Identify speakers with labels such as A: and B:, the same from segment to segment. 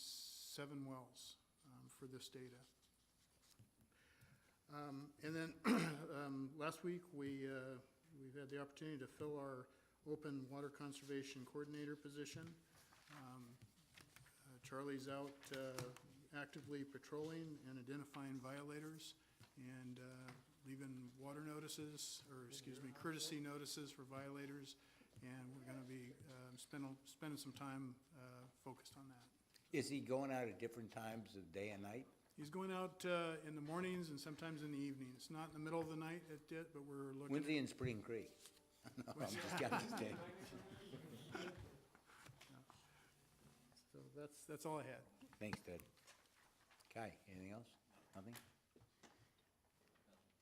A: seven wells um, for this data. Um, And then, um, last week, we, uh, we've had the opportunity to fill our open water conservation coordinator position. Um, uh, Charlie's out uh, actively patrolling and identifying violators and uh, leaving water notices, or excuse me, courtesy notices for violators, and we're going to be um, spending, spending some time uh, focused on that.
B: Is he going out at different times of day and night?
A: He's going out uh, in the mornings and sometimes in the evenings, not in the middle of the night at it, but we're looking.
B: When's he in Spring Creek? No, I'm just, I'm just kidding.
A: So that's, that's all I had.
B: Thanks, Ted. Kai, anything else? Nothing?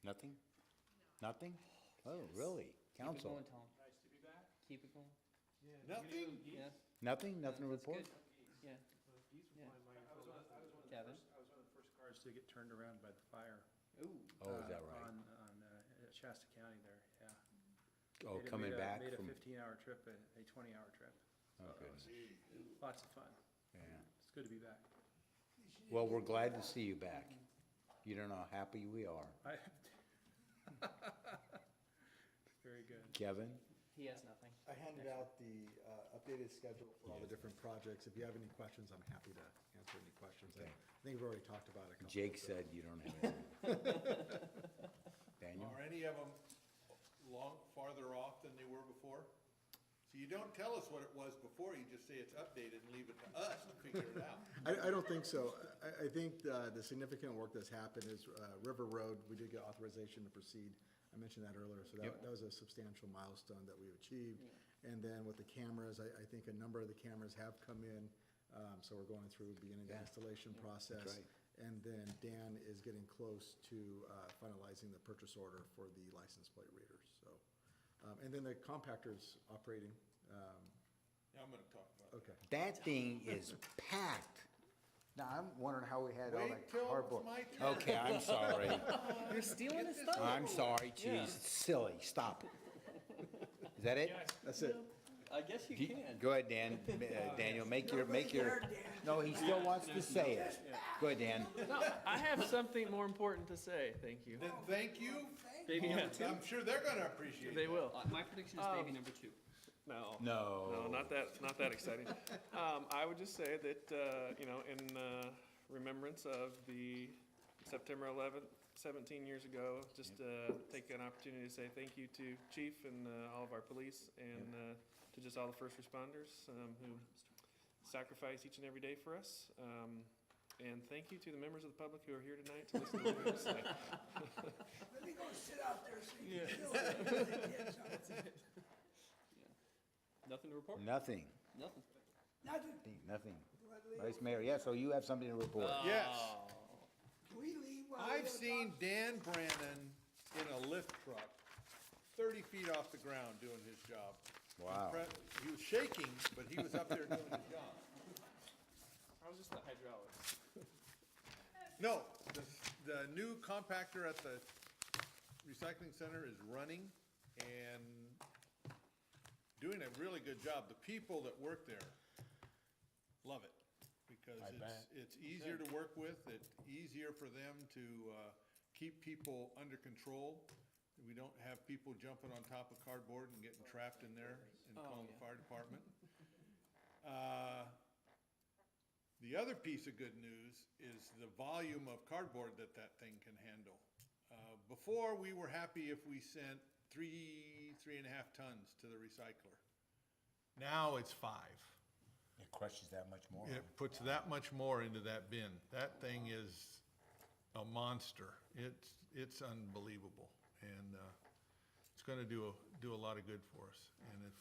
B: Nothing? Nothing? Oh, really?
C: Keep it
B: Council?
C: going, Tom. Nice to be back. Keep it going.
D: Nothing?
C: Yeah,
B: Nothing? Nothing to
C: that's
B: report?
C: good. Yeah, Yeah. Kevin.
D: I was one of the first cars to get turned around by the fire.
C: Ooh,
B: Oh, is
D: uh,
B: that right?
D: On, on uh, Shasta County there, yeah.
B: Oh,
D: Made a-
B: coming
D: made a-
B: back
D: Made a
B: from,
D: fifteen-hour trip, a- a twenty-hour trip.
B: oh, goodness.
D: Lots of fun.
B: yeah.
D: It's good to be back.
B: Well, we're glad to see you back. You don't know how happy we are.
D: I- Very good.
B: Kevin?
C: he has nothing.
E: I handed out the uh, updated schedule for all the different projects. If you have any questions, I'm happy to answer any questions. I I think we've already talked about it a couple. of
B: Jake
E: them.
B: said you don't have anything. Daniel?
F: Are any of them long, farther off than they were before? So you don't tell us what it was before, you just say it's updated and leave it to us to figure it out.
E: I, I don't think so. I, I think uh, the significant work that's happened is uh, River Road, we did get authorization to proceed. I mentioned that earlier, so that, that was a substantial milestone that we achieved. And then with the cameras, I, I think a number of the cameras have come in, um, so we're going through, beginning the
B: Yeah.
E: installation process.
B: right.
E: And then Dan is getting close to uh, finalizing the purchase order for the license plate readers, so. Um, And then the compactor's operating, um,
F: Now I'm gonna talk about
E: okay.
B: That thing is packed. Now, I'm wondering how we had all
F: Wait
B: that
F: till it's
B: cardboard.
F: my turn.
B: Okay, I'm sorry.
C: You're stealing his stuff.
B: I'm sorry,
C: Yeah.
B: geez, silly, stop it. Is that it?
E: That's it.
C: I guess you
B: Do you-
C: can.
B: Go ahead, Dan, Uh, Daniel, make your, make your, no, he still wants to say it. Go ahead, Dan.
C: No, I have something more important to say, thank you.
F: it. Then thank you,
C: Baby number
F: I'm sure they're gonna appreciate
C: They
F: it.
C: will.
G: My prediction
C: Oh.
G: is baby number two.
H: No, no,
B: No.
H: not that, not that exciting. Um, I would just say that, uh, you know, in, uh, remembrance of the September eleventh, seventeen years ago, just, uh, take an opportunity to say thank you to chief and, uh, all of our police and, uh, to just all the first responders, um, who sacrifice each and every day for us. Um, and thank you to the members of the public who are here tonight to listen to what we have to say.
I: Let me go sit out there so you can feel it.
G: Nothing to report?
B: Nothing,
G: Nothing.
I: Nothing,
B: nothing.
I: Let Leo-
B: Vice Mayor, yeah, so you have something to report.
F: Uh, Yes.
I: can we leave while Leo
F: I've
I: talks?
F: seen Dan Brannon in a lift truck, thirty feet off the ground doing his job.
B: Wow.
F: Impre- He was shaking, but he was up there doing his job.
H: I was just the hydraulics.
F: No, the, the new compactor at the recycling center is running and doing a really good job. The people that work there love it because it's, it's easier to work with, it's easier for them to, uh, keep people under control. We don't have people jumping on top of cardboard and getting trapped in there and calling the fire department. Uh, the other piece of good news is the volume of cardboard that that thing can handle. Uh, Before, we were happy if we sent three, three and a half tons to the recycler. Now it's five.
B: It crushes that much more.
F: It puts that much more into that bin. That thing is a monster. It's, it's unbelievable. And uh, it's going to do, a- do a lot of good for us. And if,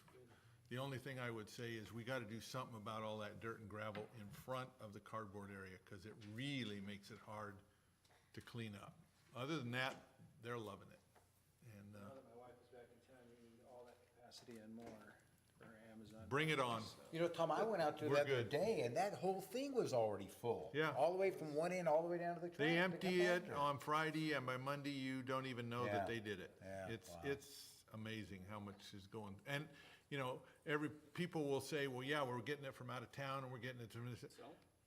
F: the only thing I would say is we got to do something about all that dirt and gravel in front of the cardboard area because it really makes it hard to clean up. Other than that, they're loving it. And uh,
D: Now that my wife is back in town, we need all that capacity and more for Amazon.
F: bring it on.
D: So-
B: You know, Tom, I went out there
F: We're
B: the other
F: good.
B: day, and that whole thing was already full.
F: Yeah.
B: All the way from one end, all the way down to the track.
F: They
B: to
F: empty it
B: compactor.
F: on Friday, and by Monday, you don't even know
B: Yeah.
F: that they did it.
B: Yeah,
F: It's,
B: wow.
F: it's amazing how much is going, and, you know, every, people will say, well, yeah, we're getting it from out of town, and we're getting it from this.